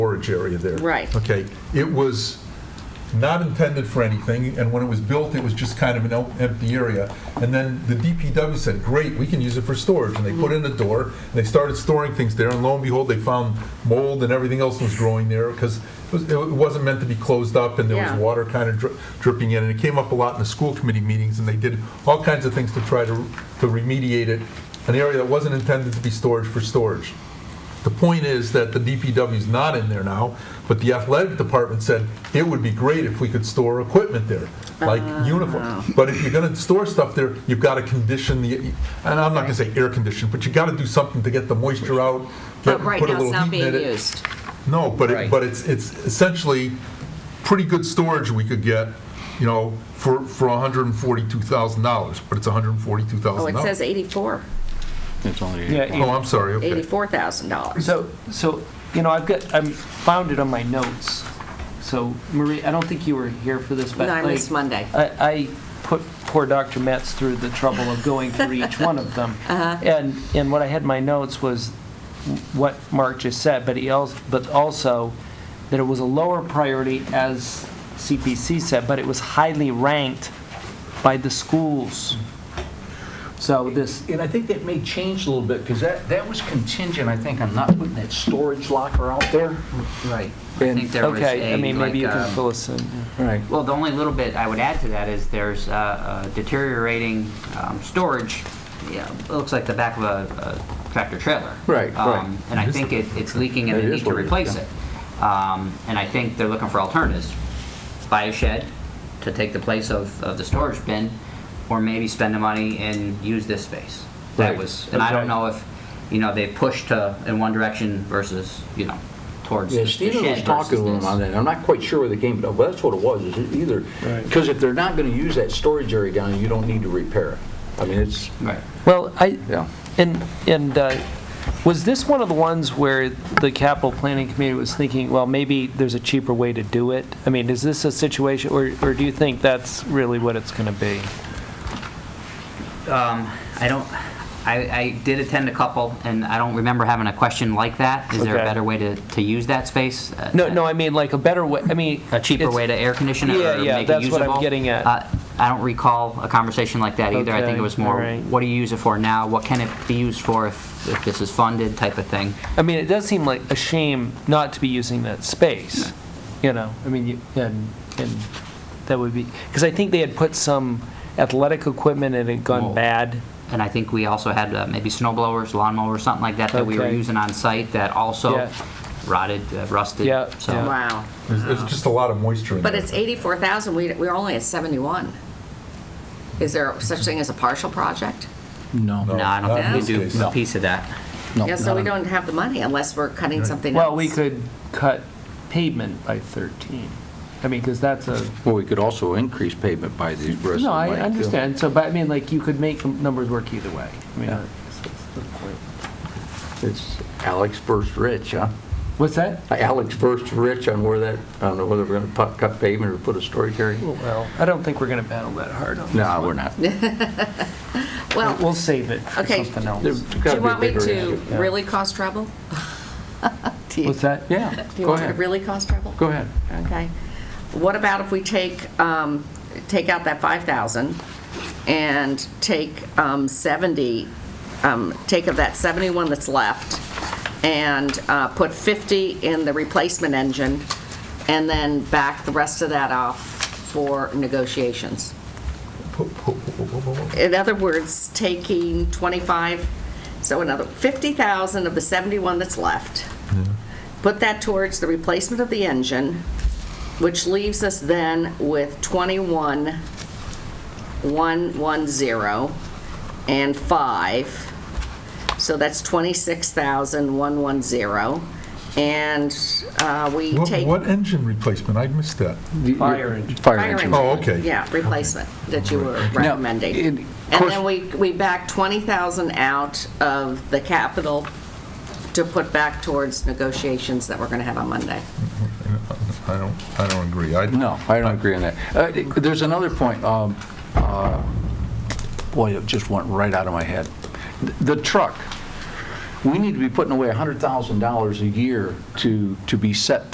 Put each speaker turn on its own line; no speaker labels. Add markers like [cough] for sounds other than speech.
storage area there.
Right.
Okay, it was not intended for anything, and when it was built, it was just kind of an el- empty area. And then the DPW said, great, we can use it for storage, and they put in a door, and they started storing things there, and lo and behold, they found mold and everything else was growing there, because it was- it wasn't meant to be closed up, and there was
Yeah.
water kind of dri- dripping in, and it came up a lot in the school committee meetings, and they did all kinds of things to try to to remediate it, an area that wasn't intended to be storage for storage. The point is that the DPW is not in there now, but the athletic department said it would be great if we could store equipment there, like
Oh,
uniforms. But if you're going to store stuff there, you've got to condition the, and I'm not going to say air condition, but you got to do something to get the moisture out. get-
But right
put a
now, it's
little
not
heat in
being
it.
used.
No, but, it-
Right.
but it's, it's essentially pretty good storage we could get, you know, for, for $142,000, but it's $142,000.
Oh, it says 84,
It's only
Yeah,
eight
Oh,
o'clock.
I'm sorry, okay.
$84,000.
So, so, you know, I've got, I'm bounded on my notes. So Marie, I don't think you were here for this, but
No, I
like,
missed Monday.
I, I put poor Dr. Metz through the trouble of going through
[laughs]
each one of them.
Uh-huh.
And, and what I had in my notes was what Mark just said, but he also, but also that it was a lower priority, as CPC said, but it was highly ranked by the schools. So this,
And I think that may change a little bit, because that, that was contingent, I think, on not putting that storage locker out there.
Right. I
And-
think there was
okay, I
a,
mean, maybe you
like,
can
um,
fill us in.
Right.
Well, the only little bit I would add to that is there's uh, uh, deteriorating um, storage. Yeah, it looks like the back of a a tractor trailer.
Right,
Um,
right.
And I think it- it's leaking and they
It is
need to
what it is,
replace
yeah.
it. Um, And I think they're looking for alternatives. Buy a shed to take the place of, of the storage bin, or maybe spend the money and use this space. That
Right,
was, and I don't
okay.
know if, you know, they pushed to, in one direction versus, you know, towards
Yeah,
the the shed
Stephen was
versus
talking to him
this.
on that, I'm not quite sure where the game, but that's what it was, is it either, because if they're not going to use that storage area down, there, you don't need to repair it. I mean, it's,
Right.
Well, I,
Yeah.
and, and uh, was this one of the ones where the capital planning committee was thinking, well, maybe there's a cheaper way to do it? I mean, is this a situation, or, or do you think that's really what it's going to be?
Um, I don't, I, I did attend a couple, and I don't remember having a question like that. Is there a
Okay.
better way to, to use that space? Uh,
No, no, I mean, like a better way, I mean.
A cheaper
it's-
way to air condition it
Yeah,
or
yeah,
make it
that's what I'm
usable?
getting at.
Uh, I don't recall a conversation like that either. I think
Okay,
it was more,
alright.
what do you use it for now? What can it be used for if, if this is funded type of thing?
I mean, it does seem like a shame not to be using that space, you know, I mean, you- and, and that would be, because I think they had put some athletic equipment and it had gone
Mold.
bad.
And I think we also had uh, maybe snow blowers, lawn mowers, something like that that we were
Okay.
using on site that
Yeah.
also rotted, uh, rusted.
Yeah,
So-
yeah.
Wow.
There's there's just a lot of moisture in there.
But it's 84,000, we, we're only at 71. Is there such thing as a partial project?
No, I
not
don't
in
think we
this
do a
case.
piece of that.
No,
Yeah, so we
not-
don't have the money unless we're cutting something else.
Well, we could cut pavement by 13. I mean, because that's a,
well, we could also increase pavement by these uh, bristles.
no, I understand, so, but I mean, like, you could make the numbers work either way. I mean,
Yeah.
I guess that's the point.
It's Alex versus Rich, huh?
What's that?
Alex versus Rich on where that, I don't know whether we're going to cut pavement or put a storage area.
Well, I don't think we're going to battle that hard on this.
No, we're not.
Well,
We'll save it for
Okay.
something
There's
else.
gotta
do
be
you
a
want me
bigger
to
issue.
really cause trouble? [laughs] Do you-
What's that?
Yeah,
Do you want me
go
to
ahead,
really cause trouble?
go ahead.
Okay. What about if we take, um, take out that 5,000 and take um, 70, um, take of that 71 that's left and uh, put 50 in the replacement engine and then back the rest of that off for negotiations? In other words, taking 25, so another 50,000 of the 71 that's left put that towards the replacement of the engine, which leaves us then with 21,110 and 5. So that's 26,110. And uh, we
What,
take,
what engine replacement? I missed that.
Fire engine.
Fire
Fire
engine.
engine.
Oh, okay.
yeah, replacement that you were
Now,
recommending.
it-
And
course-
then we, we back 20,000 out of the capital to put back towards negotiations that we're going to have on Monday.
I don't, I don't agree. I,
No, I don't agree on that. Uh, There's another point, um, uh, boy, it just went right out of my head. The truck, we need to be putting away $100,000 a year to, to be set